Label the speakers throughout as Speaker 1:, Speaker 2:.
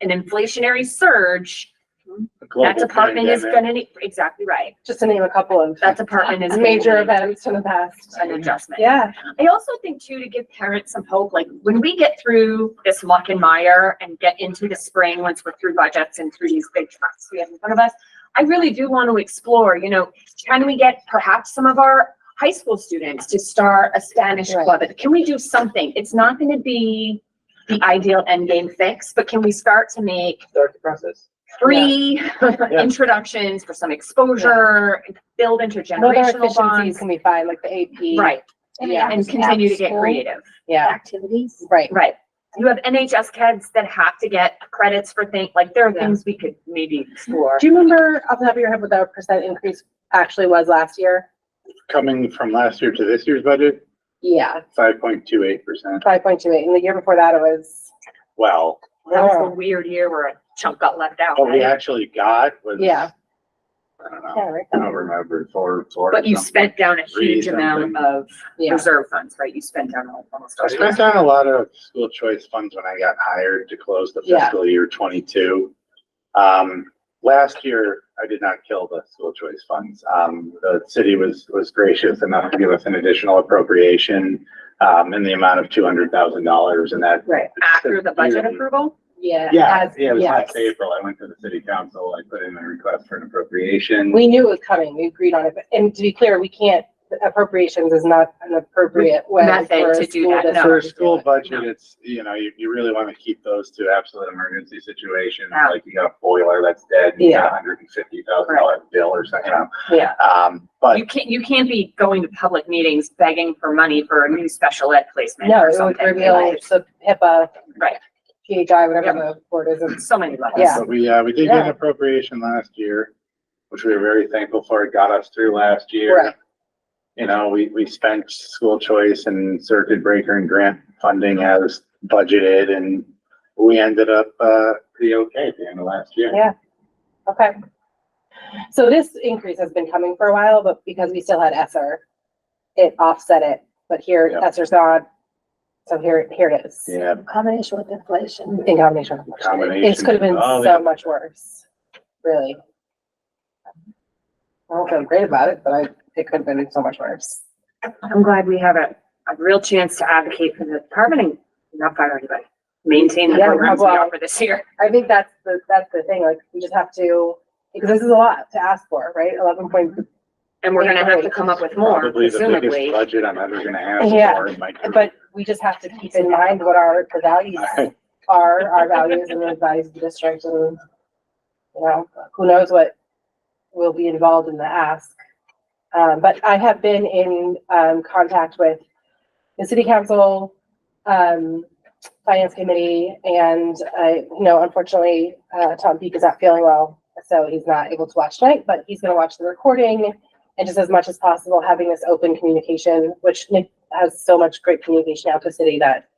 Speaker 1: an inflationary surge,
Speaker 2: A
Speaker 1: that
Speaker 2: global
Speaker 1: department is
Speaker 2: pandemic.
Speaker 1: gonna need, exactly right.
Speaker 3: just to name a couple of
Speaker 1: That department is. gonna
Speaker 3: major
Speaker 1: need
Speaker 3: events in the past.
Speaker 1: An adjustment.
Speaker 3: Yeah,
Speaker 1: I also think too, to give parents some hope, like when we get through this muck and mire and get into the spring, once we're through budgets and through these big trucks we have in front of us, I really do want to explore, you know, can we get perhaps some of our high school students to start a Spanish
Speaker 3: Right.
Speaker 1: club? Can we do something? It's not going to be the ideal end game fix, but can we start to make
Speaker 4: start the process.
Speaker 1: three introductions for some exposure, build
Speaker 3: other
Speaker 1: intergenerational
Speaker 3: efficiencies
Speaker 1: bonds?
Speaker 3: can be fine, like the AP.
Speaker 1: Right,
Speaker 3: Yeah,
Speaker 1: and continue to get creative.
Speaker 3: Yeah,
Speaker 5: Activities.
Speaker 3: right.
Speaker 1: Right. You have NHS kids that have to get credits for things, like there are
Speaker 3: Yeah.
Speaker 1: things we could maybe explore.
Speaker 3: Do you remember off the top of your head what the percent increase actually was last year?
Speaker 2: Coming from last year to this year's budget,
Speaker 3: Yeah,
Speaker 2: five point two eight percent.
Speaker 3: five point two eight. And the year before that, it was.
Speaker 2: Well,
Speaker 1: That was a weird year where a chunk got left out,
Speaker 2: what Oh, we
Speaker 1: right?
Speaker 2: actually got was.
Speaker 3: Yeah.
Speaker 2: I don't
Speaker 3: Yeah,
Speaker 2: know.
Speaker 3: right.
Speaker 2: I don't remember. Four, four.
Speaker 1: But you
Speaker 2: something.
Speaker 1: spent down a
Speaker 2: Three
Speaker 1: huge amount
Speaker 2: something.
Speaker 1: of
Speaker 3: Yeah.
Speaker 1: reserve funds, right? You spent down al- almost.
Speaker 2: I
Speaker 1: all
Speaker 2: spent
Speaker 1: of
Speaker 2: down a lot of school choice funds when I got hired to close the
Speaker 3: Yeah.
Speaker 2: fiscal year twenty-two. Um, last year, I did not kill the school choice funds. Um, the city was, was gracious enough to give us an additional appropriation um, in the amount of two hundred thousand dollars and that.
Speaker 3: Right.
Speaker 1: After the budget approval,
Speaker 3: Yeah.
Speaker 2: Yeah,
Speaker 3: as-
Speaker 2: yeah, it was
Speaker 3: yes.
Speaker 2: last April. I went to the city council. I put in a request for an appropriation.
Speaker 3: We knew it was coming. We agreed on it. but- And to be clear, we can't, appropriations is not an appropriate way.
Speaker 1: Method
Speaker 3: for a
Speaker 1: to do
Speaker 3: school
Speaker 1: that, no.
Speaker 3: district
Speaker 2: For a
Speaker 3: to do
Speaker 2: school
Speaker 3: it.
Speaker 2: budget, it's, you know, you, you really want to keep those to absolute emergency situations,
Speaker 1: Yeah.
Speaker 2: like you got a boiler that's dead, and you got
Speaker 3: Yeah.
Speaker 2: a hundred and fifty thousand dollar bill or something. you know.
Speaker 3: Yeah.
Speaker 2: Um, but
Speaker 1: you can't, you can't be going to public meetings begging for money for a new special ed placement
Speaker 3: No,
Speaker 1: or
Speaker 3: it would
Speaker 1: something.
Speaker 3: reveal
Speaker 1: Like,
Speaker 3: the HIPAA.
Speaker 1: Right.
Speaker 3: PHI, whatever the word is. it's-
Speaker 1: So many levels.
Speaker 3: Yeah.
Speaker 2: but we, uh, we did get an appropriation last year, which we were very thankful for. It got us through last year.
Speaker 3: Right.
Speaker 2: You know, we, we spent school choice and circuit breaker and grant funding as budgeted and we ended up, uh, pretty okay at the end of last year.
Speaker 3: Okay. So this increase has been coming for a while, but because we still had Esser, it offset it. But here,
Speaker 2: Yeah.
Speaker 3: Esser's not. So here, here it is.
Speaker 2: Yeah,
Speaker 5: Combination with inflation.
Speaker 3: In combination. with inflation.
Speaker 2: Combination.
Speaker 3: This could have been
Speaker 2: Oh,
Speaker 3: so
Speaker 2: yeah.
Speaker 3: much worse, really. I don't feel great about it, but I, it could have been so much worse.
Speaker 1: I'm glad we have a, a real chance to advocate for the department and not fire anybody. Maintain the
Speaker 3: Yeah,
Speaker 1: programs we
Speaker 3: well-
Speaker 1: offer this year.
Speaker 3: I think that's the, that's the thing, like, we just have to, because this is a lot to ask for, right? Eleven point,
Speaker 1: And we're gonna have to come up with more
Speaker 2: Probably the biggest
Speaker 1: presumably.
Speaker 2: budget I'm ever gonna ask
Speaker 3: Yeah,
Speaker 2: for in my career.
Speaker 3: but we just have to keep in mind what our, the values are, our values and the values of the district and, you know, who knows what will be involved in the ask. Um, but I have been in, um, contact with the city council, um, finance committee, and I, you know, unfortunately, uh, Tom Peak is not feeling well, so he's not able to watch tonight, but he's gonna watch the recording and just as much as possible, having this open communication, which Nick has so much great communication out to the city that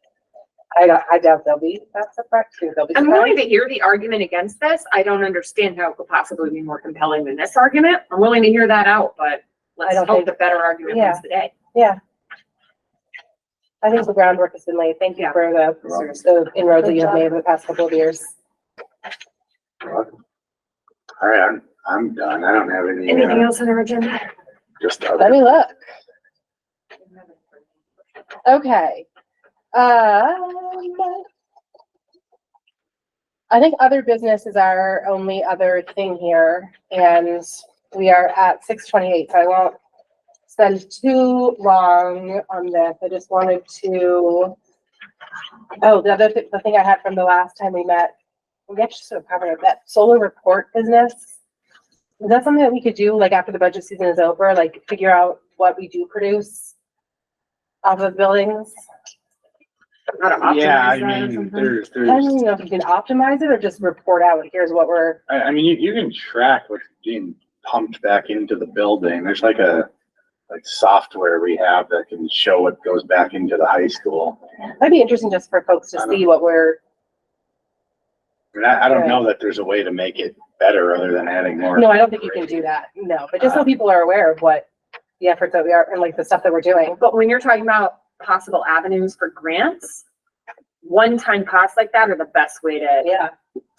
Speaker 3: I don't, I doubt they'll be, that's a fact, too, they'll be.
Speaker 1: I'm willing
Speaker 3: surprised.
Speaker 1: to hear the argument against this. I don't understand how it could possibly be more compelling than this argument. I'm willing to hear that out, but let's
Speaker 3: don't
Speaker 1: hope
Speaker 3: think-
Speaker 1: the better argument
Speaker 3: Yeah.
Speaker 1: wins the day.
Speaker 3: I think the groundwork has been laid. Thank you
Speaker 1: Yeah.
Speaker 3: for the, the inroads that you have made over the past couple of years.
Speaker 2: All right, I'm, I'm done. I don't have any,
Speaker 1: Anything
Speaker 2: uh,
Speaker 1: else on our agenda?
Speaker 2: just
Speaker 3: Let
Speaker 2: other.
Speaker 3: me look. Okay. Um, I think other business is our only other thing here, and we are at six twenty-eight, so I won't spend too long on this. I just wanted to. Oh, the other, thi- the thing I had from the last time we met, we actually sort of covered it, that solar report business. Is that something that we could do, like, after the budget season is over, like, figure out what we do produce off of buildings?
Speaker 1: Not an option,
Speaker 2: Yeah,
Speaker 1: is that
Speaker 2: I
Speaker 1: or
Speaker 2: mean,
Speaker 1: something?
Speaker 2: there's,
Speaker 3: I don't even
Speaker 2: there's,
Speaker 3: know if you can optimize it or just report out, here's what we're,
Speaker 2: I, I mean, you, you can track what's being pumped back into the building. There's like a, like software we have that can show what goes back into the high school.
Speaker 3: that'd be interesting just for folks
Speaker 2: I
Speaker 3: to
Speaker 2: don't
Speaker 3: see what we're,
Speaker 2: I mean, I, I don't know that there's a way to make it better other than adding more.
Speaker 3: no, I don't think you can do that, no, but just
Speaker 2: Uh,
Speaker 3: so people are aware of what the efforts that we are, and like the stuff that we're doing.
Speaker 1: But when you're talking about possible avenues for grants, one-time costs like that are the best way to
Speaker 3: Yeah,